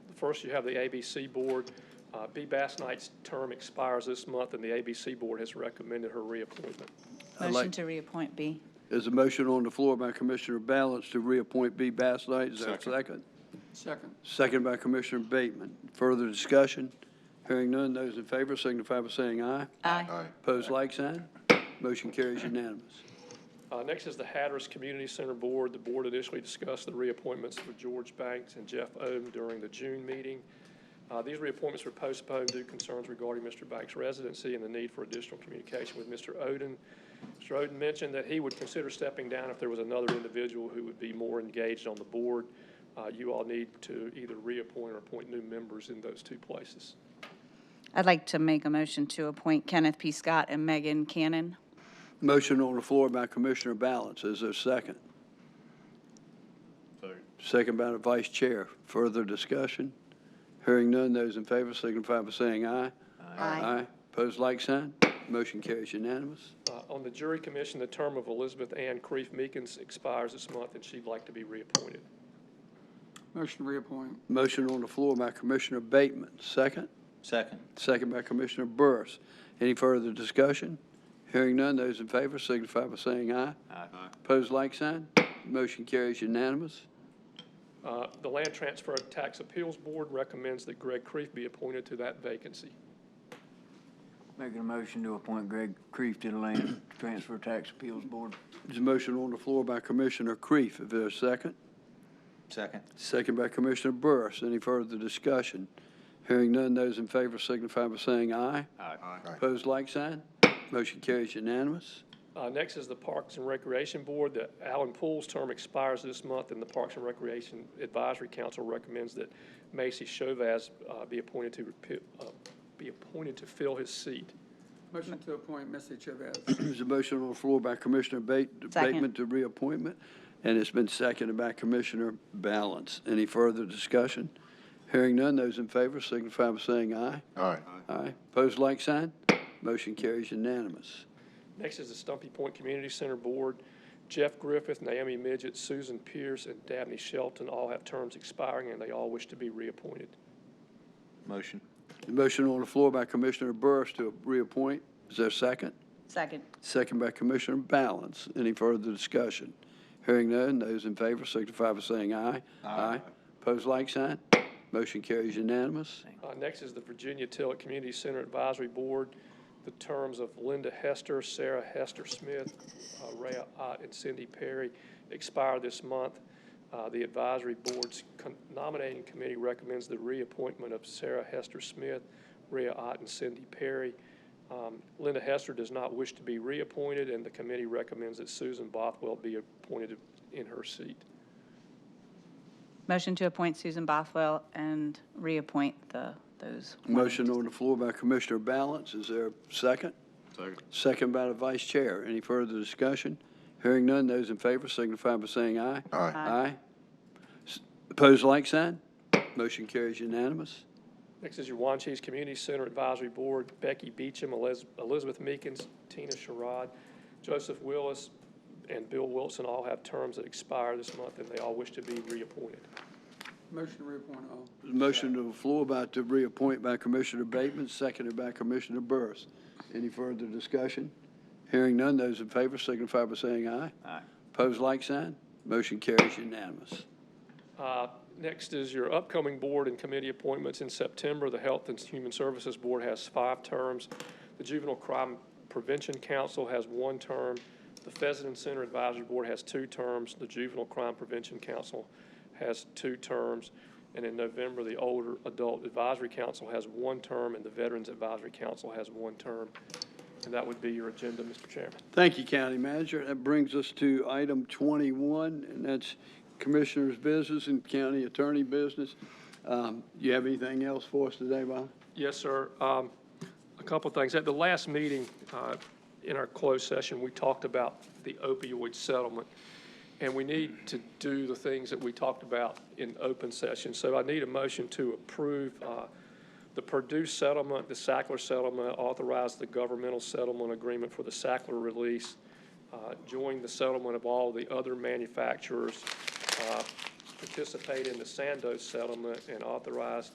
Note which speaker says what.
Speaker 1: First, you have the ABC Board. Uh, Bee Bass Knight's term expires this month, and the ABC Board has recommended her reappointment.
Speaker 2: I'd
Speaker 3: Motion like-
Speaker 2: to reappoint B.
Speaker 3: There's a motion on the floor by Commissioner Balance to reappoint B. Bass Knight. Is there a
Speaker 4: Second.
Speaker 3: second?
Speaker 5: Second.
Speaker 3: Second by Commissioner Bateman. Further discussion? Hearing none, those in favor signify by saying aye.
Speaker 2: Aye.
Speaker 4: Aye.
Speaker 3: Pose like sign. Motion carries unanimous.
Speaker 1: Uh, Next is the Hatteras Community Center Board. The board initially discussed the reappointments for George Banks and Jeff Ohm during the June meeting. Uh, These reappointments were postponed due to concerns regarding Mr. Banks' residency and the need for additional communication with Mr. Oden. Mr. Oden mentioned that he would consider stepping down if there was another individual who would be more engaged on the board. Uh, You all need to either reappoint or appoint new members in those two places.
Speaker 2: I'd like to make a motion to appoint Kenneth P. Scott and Megan Cannon.
Speaker 3: Motion on the floor by Commissioner Balance. Is there a second? Second by the Vice Chair. Further discussion? Hearing none, those in favor signify by saying aye. Aye. Pose like sign. Motion carries unanimous.
Speaker 1: Uh, On the jury commission, the term of Elizabeth Ann Creef Meekins expires this month, and she'd like to be reappointed.
Speaker 5: Motion to reappoint.
Speaker 3: Motion on the floor by Commissioner Bateman. Second?
Speaker 6: Second.
Speaker 3: Second by Commissioner Burris. Any further discussion? Hearing none, those in favor signify by saying aye.
Speaker 6: Aye.
Speaker 3: Pose like sign. Motion carries unanimous.
Speaker 1: Uh, The Land Transfer Tax Appeals Board recommends that Greg Creef be appointed to that vacancy.
Speaker 7: Making a motion to appoint Greg Creef to the Land Transfer Tax Appeals Board.
Speaker 3: There's a motion on the floor by Commissioner Creef. Is there a second?
Speaker 6: Second.
Speaker 3: Second by Commissioner Burris. Any further discussion? Hearing none, those in favor signify by saying aye.
Speaker 6: Aye.
Speaker 3: Pose like sign. Motion carries unanimous.
Speaker 1: Uh, Next is the Parks and Recreation Board. The Alan Poole's term expires this month, and the Parks and Recreation Advisory Council recommends that Macy Chauvaz uh, be appointed to, repi- uh, be appointed to fill his seat.
Speaker 5: Motion to appoint Missy Chavez.
Speaker 3: There's a motion on the floor by Commissioner Bate-
Speaker 2: Second.
Speaker 3: Bateman to reappointment, and it's been seconded by Commissioner Balance. Any further discussion? Hearing none, those in favor signify by saying aye.
Speaker 4: Aye.
Speaker 3: Aye. Pose like sign. Motion carries unanimous.
Speaker 1: Next is the Stumpy Point Community Center Board. Jeff Griffith, Naomi Midget, Susan Pierce, and Dabney Shelton all have terms expiring, and they all wish to be reappointed.
Speaker 6: Motion.
Speaker 3: The motion on the floor by Commissioner Burris to reappoint. Is there a second?
Speaker 2: Second.
Speaker 3: Second by Commissioner Balance. Any further discussion? Hearing none, those in favor signify by saying aye. Aye. Pose like sign. Motion carries unanimous.
Speaker 1: Uh, Next is the Virginia Tillett Community Center Advisory Board. The terms of Linda Hester, Sarah Hester Smith, uh, Rhea Ott, and Cindy Perry expire this month. Uh, The advisory board's con- nominating committee recommends the reappointment of Sarah Hester Smith, Rhea Ott, and Cindy Perry. Um, Linda Hester does not wish to be reappointed, and the committee recommends that Susan Bothwell be appointed in her seat.
Speaker 2: Motion to appoint Susan Bothwell and reappoint the, those.
Speaker 3: Motion on the floor by Commissioner Balance. Is there a second?
Speaker 4: Second.
Speaker 3: Second by the Vice Chair. Any further discussion? Hearing none, those in favor signify by saying aye.
Speaker 4: Aye.
Speaker 3: Aye. S- Opposed, like sign. Motion carries unanimous.
Speaker 1: Next is your Wanches Community Center Advisory Board, Becky Beecham, Eliz- Elizabeth Meekins, Tina Sherrod, Joseph Willis, and Bill Wilson all have terms that expire this month, and they all wish to be reappointed.
Speaker 5: Motion to reappoint all.
Speaker 3: Motion to the floor by to reappoint by Commissioner Bateman, seconded by Commissioner Burris. Any further discussion? Hearing none, those in favor signify by saying aye.
Speaker 6: Aye.
Speaker 3: Opposed, like sign. Motion carries unanimous.
Speaker 1: Uh, Next is your upcoming board and committee appointments in September. The Health and Human Services Board has five terms. The Juvenile Crime Prevention Council has one term. The Pheasant Center Advisory Board has two terms. The Juvenile Crime Prevention Council has two terms. And in November, the Older Adult Advisory Council has one term, and the Veterans Advisory Council has one term. And that would be your agenda, Mr. Chairman.
Speaker 3: Thank you, County Manager. That brings us to item 21, and that's Commissioner's business and County Attorney business. Um, You have anything else for us today, Bob?
Speaker 1: Yes, sir. Um, A couple of things. At the last meeting, uh, in our closed session, we talked about the opioid settlement, and we need to do the things that we talked about in open session. So I need a motion to approve uh, the Purdue settlement, the Sackler settlement, authorize the governmental settlement agreement for the Sackler release, uh, join the settlement of all the other manufacturers, uh, participate in the Sandoz settlement, and authorize